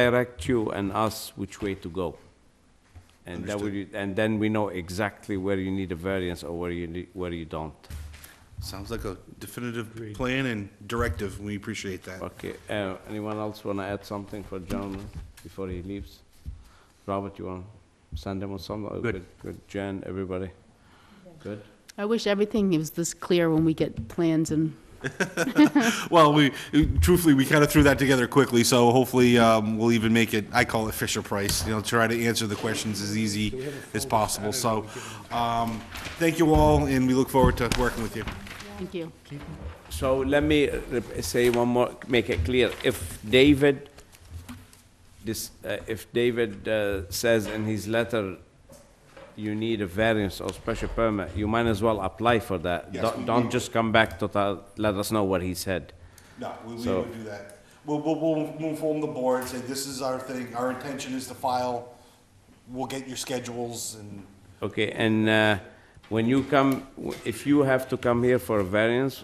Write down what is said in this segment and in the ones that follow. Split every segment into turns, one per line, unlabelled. direct you and us which way to go. And that would, and then we know exactly where you need a variance or where you, need- where you don't.
Sounds like a definitive plan and directive. We appreciate that.
Okay, uh, anyone else want to add something for John before he leaves? Robert, you want to send him or something? Good. Good, Jen, everybody? Good?
I wish everything was this clear when we get plans and,
Well, we, truthfully, we kind of threw that together quickly, so hopefully, um, we'll even make it, I call it Fisher Price, you know, try to answer the questions as easy as possible. So, um, thank you all, and we look forward to working with you.
thank you.
So let me uh, rep- say one more, make it clear. If David, this, uh, if David uh, says in his letter, you need a variance or special permit, you might as well apply for that.
Yes, we-
Don't-
we-
Don't just come back to tell- let us know what he said.
No, we, we
So-
would do that. We'll, we'll, we'll we'll inform the board, say this is our thing, our intention is to file, we'll get your schedules and.
Okay, and uh, when you come, w- if you have to come here for a variance,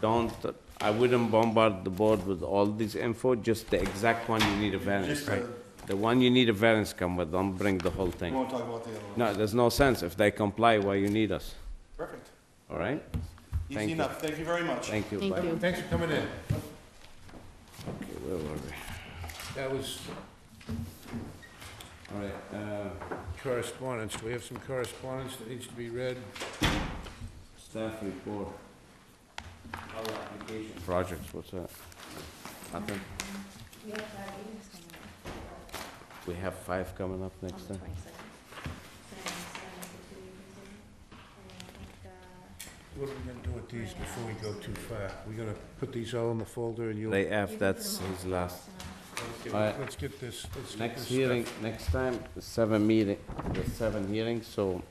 don't, I wouldn't bombard the board with all this info, just the exact one you need a variance.
Just the-
right? The one you need a variance come with, don't bring the whole
We
thing.
won't talk about the other one.
No, there's no sense. If they comply, why you need us,
Perfect.
all right? Thank
Easy
you.
enough. Thank you very much.
Thank you.
Thank
Bye.
you.
Thanks for coming in.
Okay, where were we?
That was
All right, uh,
correspondence. Do we have some correspondence that needs to be read?
staff report. Our application. Projects, what's that? Nothing? We have five coming up next time.
What are we gonna do with these before we go too far? We're gonna put these all in the folder and you'll,
They F, that's his last. Alright.
let's get this, let's get
Next
this
hearing,
stuff.
next time, the seven meeting, the seven hearings, so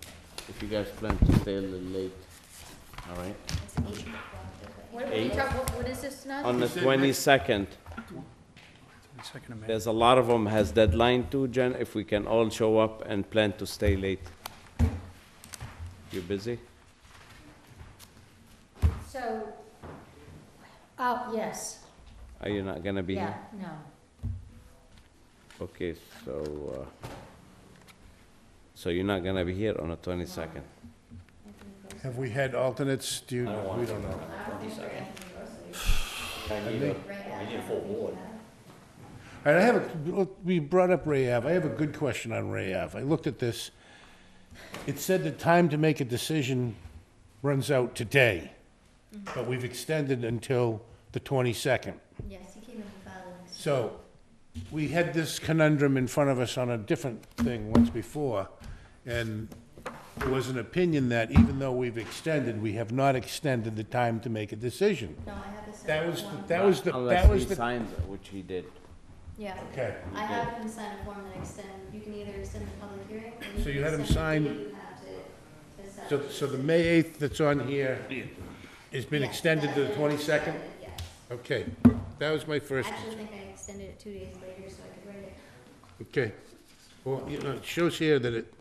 if you guys plan to stay a little late, all right?
What, what are you talking- what- what is this now?
On the twenty-second. There's a lot of them has deadline too, Jen, if we can all show up and plan to stay late. You busy?
So, oh, yes,
Are you not gonna be
yeah,
here?
no.
Okay, so, uh, so you're not gonna be here on the twenty-second?
Have we had alternates? Do you, we don't know. All right, I have, a- we brought up Ray Ave. I have a good question on Ray Ave. I looked at this. It said the time to make a decision runs out today, but we've extended until the 22nd.
Yes, you came in the filings.
So, we had this conundrum in front of us on a different thing once before, and there was an opinion that even though we've extended, we have not extended the time to make a decision.
No, I have this.
That was,
form.
that was the, that
Unless
was
he
the,
signs, it, which he did.
Yeah.
okay.
I have him sign a form that extend, you can either extend the public hearing. or
So you
can
had him
extend the
sign-
date you have to- to set.
So, so the May 8th that's on here has been extended to the 22nd?
Yes.
Okay, that was my
I
first,
actually think I extended it two days later so I could write it.
okay. Well, you know, it shows here that it,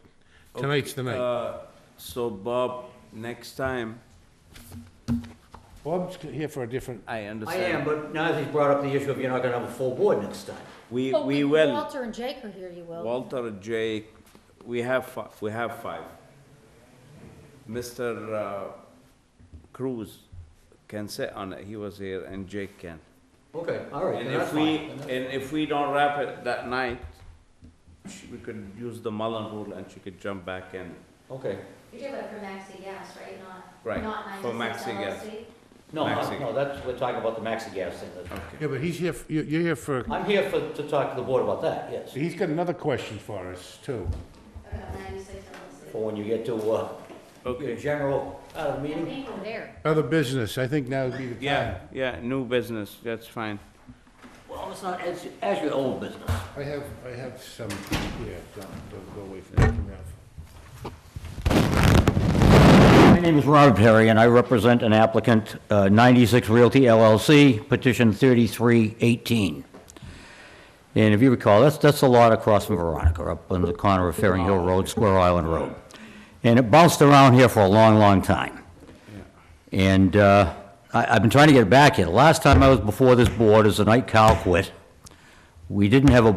tonight's the night.
Uh, so Bob, next time,
Bob's here for a different,
I
I
understand.
am, but now that he's brought up the issue of you're not gonna have a full board next time.
We, we will.
Walter and Jake are here, you will.
Walter, Jake, we have fi- we have five. Mr. uh, Cruz can sit on it, he was here, and Jake can.
Okay, all right,
And
then that's
if we,
fine. Then that-
and if we don't wrap it that night, sh- we could use the Mullen rule and she could jump back in.
Okay,
You're talking about for Maxi Gas, right? Not,
Right,
not nine
for
to six
Maxi Gas.
LLC?
no,
Maxi.
no, no, that's, we're talking about the maxi gas thing. that's-
yeah, but he's here, f- you- you're here for,
I'm here for, to talk to the board about that, yes,
he's got another question for us, too.
About ninety-six LLC.
for when you get to, uh, your
Okay,
general, uh,
I
meeting.
think we're there.
Other business, I think now would be the time.
yeah, yeah, new business, that's fine.
Well, it's not, it's, as your old business.
I have, I have some, yeah, don't, don't go away from that for now.
My name is Robert Perry, and I represent an applicant, uh, 96 Realty LLC, petition 3318. And if you recall, that's, that's a lot across from Veronica, up on the corner of Fairing Hill Road, Square Island Road. And it bounced around here for a long, long time. And uh, I, I've been trying to get it back here. Last time I was before this board is the night Cal quit. We didn't have a board